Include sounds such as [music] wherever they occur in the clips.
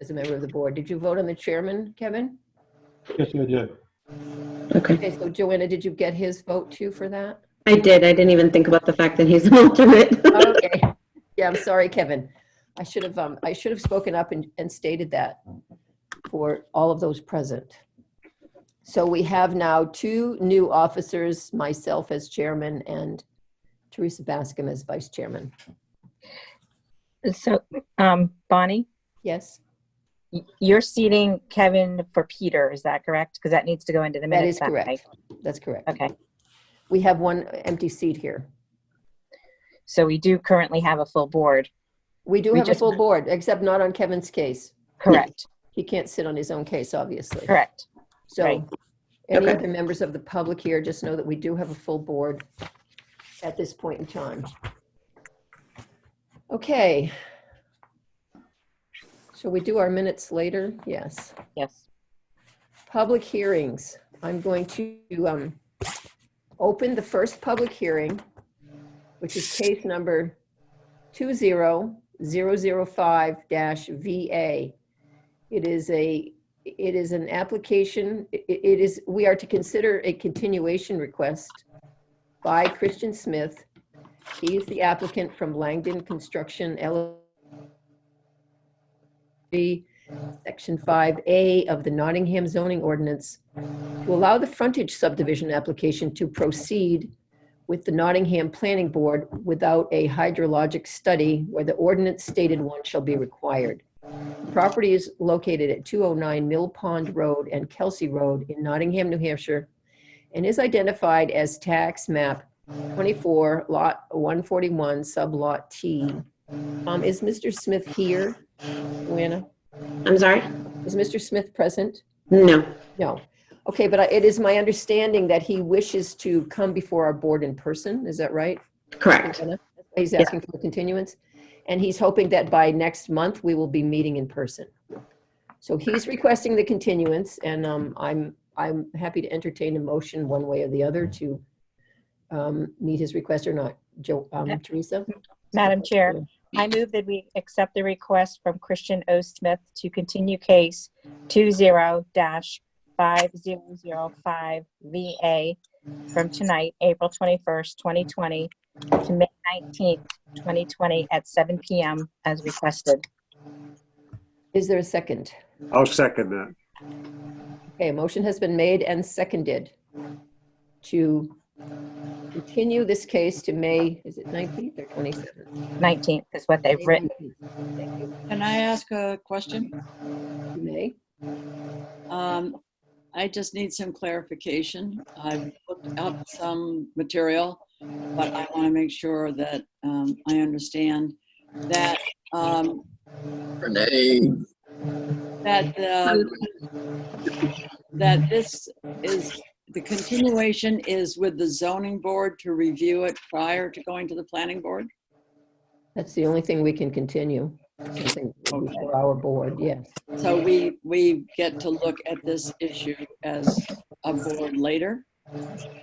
as a member of the board. Did you vote on the chairman, Kevin? Yes, I did. Okay. Okay, so Joanna, did you get his vote too for that? I did. I didn't even think about the [laughs] fact that he's an alternate. Okay. Yeah, I'm sorry, Kevin. I should have, um, I should have spoken up and, and stated that for all of those present. So we have now two new officers, myself as chairman and Teresa Bascom as vice chairman. So, um, Bonnie, Yes, y- you're seating Kevin for Peter, is that correct? Because that needs to go into the that minutes. is night. correct. That's correct. Okay, We have one empty seat here. so we do currently have a full board, We do We have a just- full board, except not on Kevin's case. correct, He can't sit on his own case, obviously. correct. So Right. any Okay. other members of the public here, just know that we do have a full board at this point in time. Okay. Shall we do our minutes later? Yes. Yes, Public hearings. I'm going to um, open the first public hearing, which is case number 20005-VA. It is a, it is an application, i- i- it is, we are to consider a continuation request by Christian Smith. He is the applicant from Langdon Construction LLC, Section 5A of the Nottingham zoning ordinance to allow the frontage subdivision application to proceed with the Nottingham Planning Board without a hydrologic study where the ordinance stated one shall be required. The Property is located at 209 Mill Pond Road and Kelsey Road in Nottingham, New Hampshire, and is identified as tax map 24, lot 141, sub lot T. Um, Is Mr. Smith here? Joanna? I'm sorry? Is Mr. Smith present? No. No. Okay, but I- it is my understanding that he wishes to come before our board in person, is that right? Correct. He's Yeah. asking for continuance, and he's hoping that by next month, we will be meeting in person. So he's requesting the continuance, and um, I'm, I'm happy to entertain a motion one way or the other to um, meet his request or not. Jo, um, Teresa? Madam Chair, I move that we accept the request from Christian O. Smith to continue case two zero dash five zero zero five VA from tonight, April twenty-first, twenty twenty, to May nineteenth, twenty twenty, at seven PM as requested. Is there a second? I'll second that. Okay, a motion has been made and seconded to continue this case to May, is it 19th or 27th? Nineteenth is what they've written. Can I ask a question? May, Um, I just need some clarification. I've looked up some material, but I want to make sure that um, I understand that, um, Renee. that, the that this is, the continuation is with the zoning board to review it prior to going to the planning board? that's the only thing we can continue, something before our board, yes. So we, we get to look at this issue as a board later?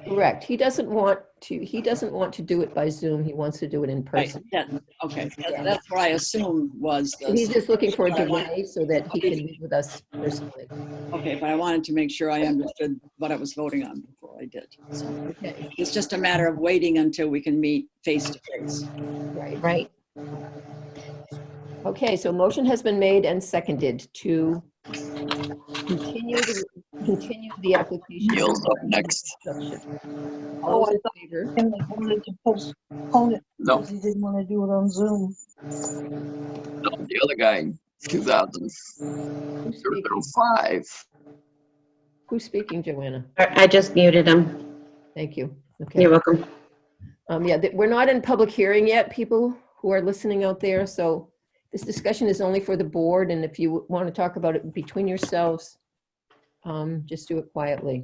Correct, he doesn't want to, he doesn't want to do it by Zoom, he wants to do it in Right, person. that, okay, that- that's what I assumed was He's the, just looking for a delay so that he can meet with us personally. okay, but I wanted to make sure I understood what I was voting on before I did. So Okay, It's just a matter of waiting until we can meet face to face. right. Right, Okay, so motion has been made and seconded to continue, the- continue the application. Neil's up next. All those in favor? And they wanted to postpone it No, because he didn't want to do it on Zoom. no, the other guy, 2000, Who's speaking? 005. Who's speaking, Joanna? I I just muted him. Thank you. Okay. You're welcome. Um, yeah, th- we're not in public hearing yet, people who are listening out there, so this discussion is only for the board, and if you want to talk about it between yourselves, um, just do it quietly.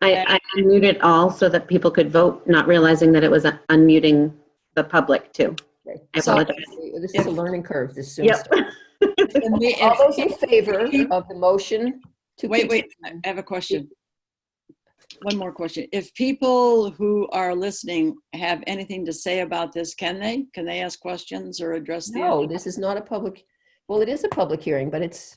I, I unmuted all so that people could vote, not realizing that it was un- unmuting the public too. Okay. I apologize. This is a learning curve, this Zoom. Yep. stuff. All those in favor of the motion to. Wait, wait, I continue- I have a question. One more question. If people who are listening have anything to say about this, can they? Can they ask questions or address the? No, this is not a public, well, it is a public hearing, but it's,